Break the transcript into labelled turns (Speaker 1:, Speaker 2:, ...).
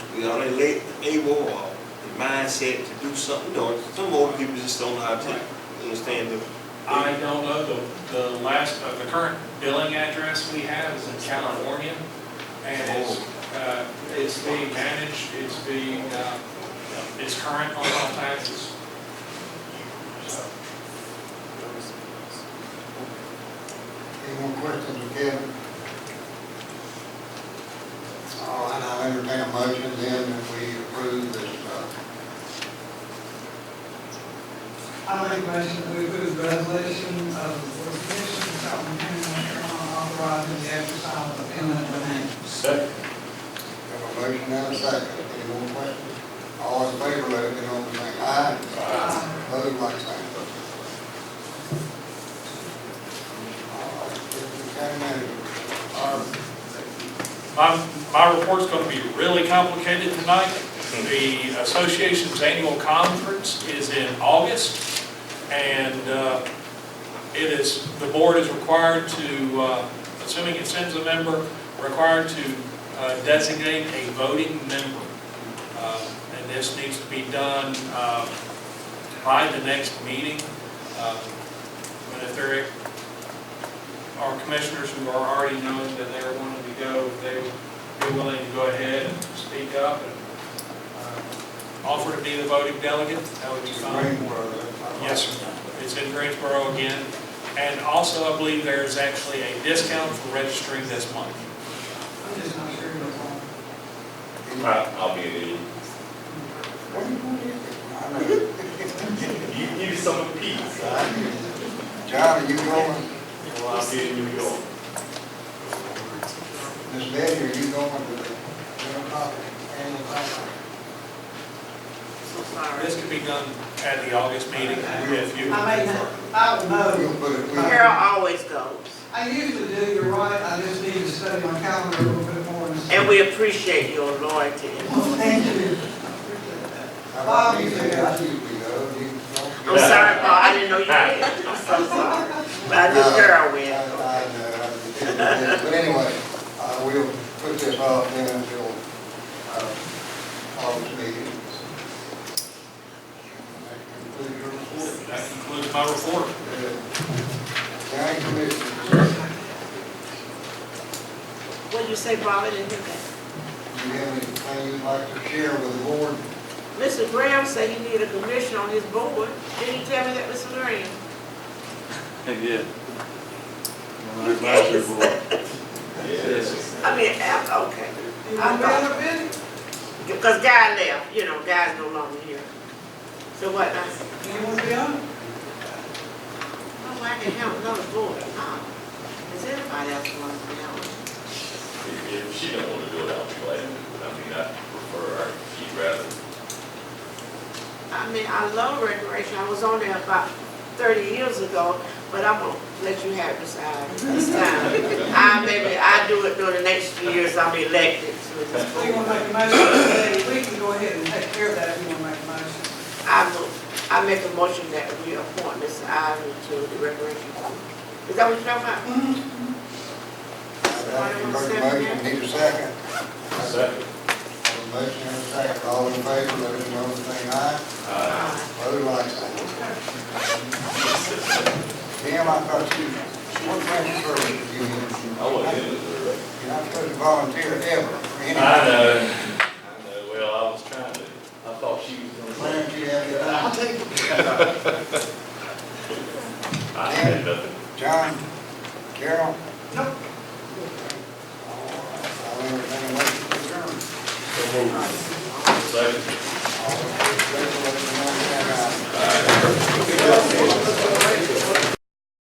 Speaker 1: we only let the able or the mindset to do something, or some older people just don't know how to understand the.
Speaker 2: I don't know, the, the last, uh, the current billing address we have is in California, and it's, uh, it's being managed, it's being, uh, it's current on all taxes. So,
Speaker 3: Any more questions for Kevin? All right, I'll entertain a motion then if we approve this, uh,
Speaker 4: I make a motion that we approve the resolution of the Board of Commissioners, Calhoun County, North Carolina, authorizing the exercise of eminent domain.
Speaker 3: have a motion and a second. Any more questions? All in favor, let it be known by saying aye.
Speaker 4: Aye.
Speaker 3: Opposed, like sign. All right, Mr. County Manager,
Speaker 2: My, my report's gonna be really complicated tonight. The association's annual conference is in August, and, uh, it is, the board is required to, uh, assuming it sends a member, required to uh, designate a voting member. Uh, And this needs to be done, uh, by the next meeting. Uh, But if there are commissioners who are already knowing that they're wanting to go, if they be willing to go ahead and speak up and uh, offer to be the voting delegate, that would be
Speaker 3: Mr.
Speaker 2: fine.
Speaker 3: Greenwood.
Speaker 2: Yes, sir. It's in Greensboro again. And also, I believe there's actually a discount for registering this month.
Speaker 4: I'm just not sure what's on.
Speaker 3: Any-
Speaker 5: I'll be there.
Speaker 3: What do you want to do? I know.
Speaker 5: You need some peace.
Speaker 3: John, are you going?
Speaker 5: Well, I'll be in New York.
Speaker 3: Ms. Betty, are you going to the general property, annual property?
Speaker 6: So sorry.
Speaker 2: This could be done at the August meeting if you.
Speaker 4: I may not, I don't know.
Speaker 3: We'll put it, we'll,
Speaker 6: Carol always goes,
Speaker 4: I usually do, you're right, I just need to study my calendar a little bit more.
Speaker 6: and we appreciate your loyalty.
Speaker 4: Well, thank you. I appreciate
Speaker 3: I
Speaker 4: that.
Speaker 3: don't need to, I usually go, you
Speaker 6: I'm
Speaker 3: don't.
Speaker 6: sorry, Paul, I didn't know you did. I'm so sorry. But I knew
Speaker 3: I, I,
Speaker 6: Carol went.
Speaker 3: uh, know, I- but anyway, uh, we'll put this off then until, uh, August meeting. That concludes your report.
Speaker 2: That concludes my report.
Speaker 3: County Commissioners,
Speaker 6: What'd you say, Paul, I didn't hear that?
Speaker 3: do you have anything you'd like to share with the board?
Speaker 6: Mr. Graham said he needed a commission on his board. Didn't he tell me that, Mr. Graham?
Speaker 7: Yeah.
Speaker 6: Yes.
Speaker 5: Yes.
Speaker 6: I mean, Al- okay.
Speaker 4: You want me out of bed?
Speaker 6: Because Guy left, you know, Guy's no longer here. So what, I said,
Speaker 4: You want to be on?
Speaker 6: oh, I can have another board. Oh, Does anybody else want to be on?
Speaker 5: If if she don't wanna do it, I'll be glad. I mean, I prefer, her. she'd rather.
Speaker 6: I mean, I love recreation. I was on there about thirty years ago, but I'm gonna let you have this time. This time. I maybe, I do it during the next few years I'm elected to this
Speaker 4: So you want
Speaker 6: board.
Speaker 4: to make a motion today? We can go ahead and take care of that if you want to make a motion.
Speaker 6: I move, I make a motion that we appoint Mr. Ivy to the recreation board. Is that what you're talking about?
Speaker 3: I'd like to make a motion, need a second. Have
Speaker 5: Second.
Speaker 3: a motion and a second, all in favor, let it be known by saying aye. Opposed, like sign. Tim, I thought you, what kind of service do you need?
Speaker 5: I wasn't in it.
Speaker 3: You're not supposed to volunteer ever for
Speaker 5: I
Speaker 3: anything.
Speaker 5: know. I know. Well, I was trying to, I thought she was gonna.
Speaker 3: Clarence, you have your eye.
Speaker 5: I had nothing.
Speaker 3: John, Carol?
Speaker 4: Nope.
Speaker 3: All right, I'll entertain a motion to adjourn.
Speaker 5: Second.
Speaker 3: All in favor, let it be known by saying aye.